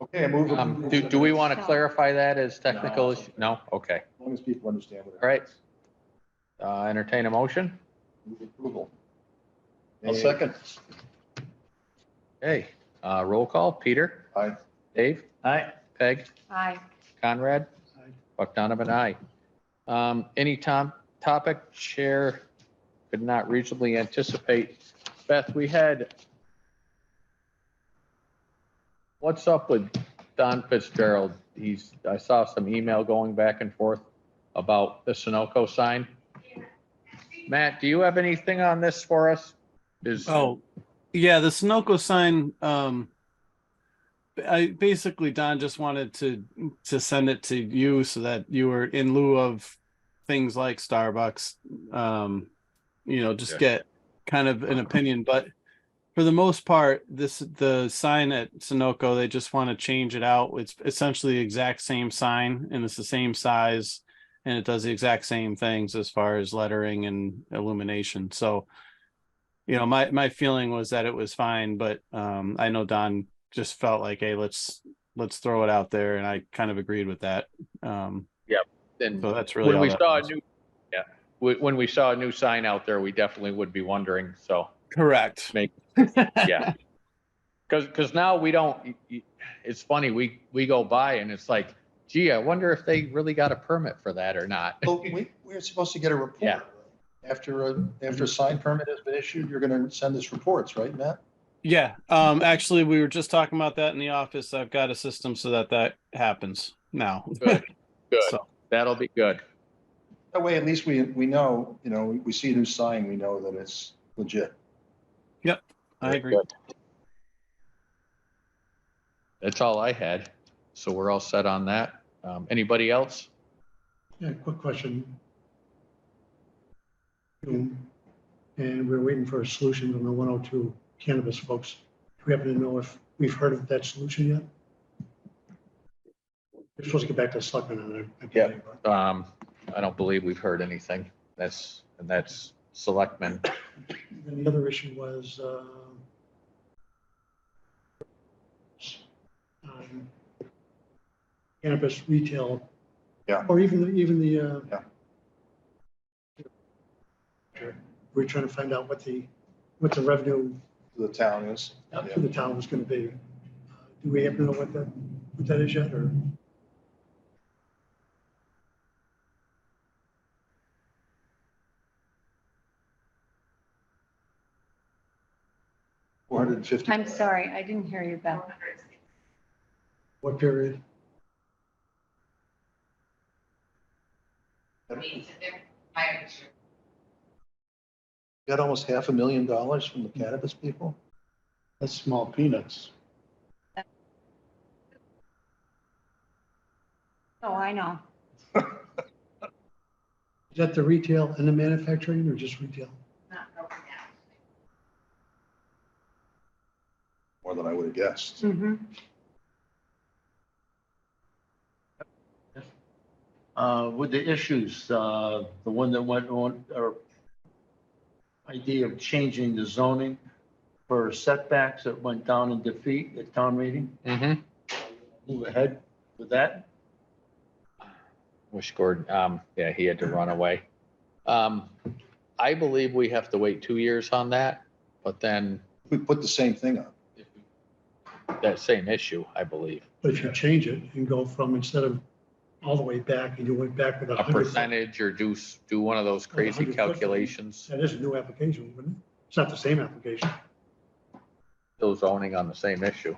Okay, I move. Um, do, do we want to clarify that as technical No. issue? No, okay. As long as people understand what. it Right. is. Uh, entertain a motion? Move Approval. I'll second. Hey, uh, roll call, Peter, Aye. Dave, Aye. Peg, Aye. Conrad, Buck Donovan, aye. Um, any tom, topic chair could not reasonably anticipate. Beth, we had what's up with Don Fitzgerald? He's, I saw some email going back and forth about the Sunoco sign. Matt, do you have anything on this for us? Is, Oh, yeah, the Sunoco sign, um, I basically, Don just wanted to, to send it to you so that you were in lieu of things like Starbucks, um, you know, just Yeah. get kind of an opinion, but for the most part, this, the sign at Sunoco, they just want to change it out. It's essentially the exact same sign and it's the same size and it does the exact same things as far as lettering and illumination. So, you know, my, my feeling was that it was fine, but, um, I know Don just felt like, hey, let's, let's throw it out there. And I kind of agreed with that. Um, and so that's really when all we that saw a was. new, yeah, when, when we saw a new sign out there, we definitely would be wondering, so. Correct. Yeah. Cause, cause now we don't, y- y- it's funny, we, we go by and it's like, gee, I wonder if they really got a permit for that or not. Well, we, we're supposed to get a Yeah. report. After a, after a sign permit has been issued, you're gonna send us reports, right, Matt? Yeah. Um, actually, we were just talking about that in the office. I've got a system so that that happens now. Good, good. So, That'll be good. That way, at least we, we know, you know, we see a new sign, we know that it's legit. I agree. That's all I had. So we're all set on that. Um, anybody else? Yeah, quick question. Um, And we're waiting for a solution from the 102 cannabis folks. Do we happen to know if we've heard of that solution yet? We're supposed to get back to the selectmen on it. I believe, but- Um, I don't believe we've heard anything. That's, and that's selectmen. And the other issue was, um, um, cannabis retail. Yeah. Or even, even the, uh, Yeah. We're trying to find out what the, what the revenue The town is. Yeah. to the town was gonna be. Uh, Do we happen to know what that, what that is yet, or? Four hundred and fifty. I'm sorry, I didn't hear you, Beth. What period? Got almost half a million dollars from the cannabis people? That's small peanuts. Oh, I know. Is that the retail and the manufacturing, or just retail? More than I would have guessed. Mhm. Uh, with the issues, uh, the one that went on, or idea of changing the zoning for setbacks that went down in defeat at town meeting, Mm-hmm. move ahead with that. Wish Gordon, um, yeah, he had to run away. Um, I believe we have to wait two years on that, but then We put the same thing up. that same issue, I believe. But if you change it and go from, instead of all the way back, and you went back with a A hundred. percentage or do, s- do one of those crazy 100%. calculations, That is a new application, wouldn't it? It's not the same application. still zoning on the same issue.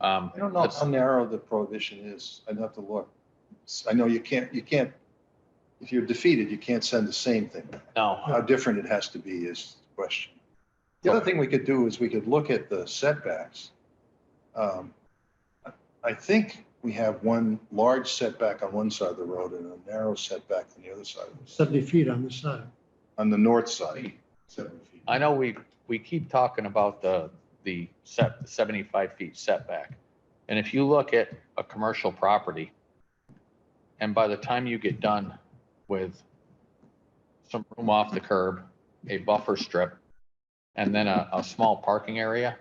Um, I don't know let's- how narrow the prohibition is. I'd have to look. I know you can't, you can't, if you're defeated, you can't send the same thing. No, How different it has to be is the question. The other thing we could do is we could look at the setbacks. Um, I- I think we have one large setback on one side of the road and a narrow setback on the other side, Seventy feet on this side. on the north side. seven feet. I know we, we keep talking about the, the set, seventy-five feet setback. And if you look at a commercial property, and by the time you get done with some room off the curb, a buffer strip, and then a, a small parking area,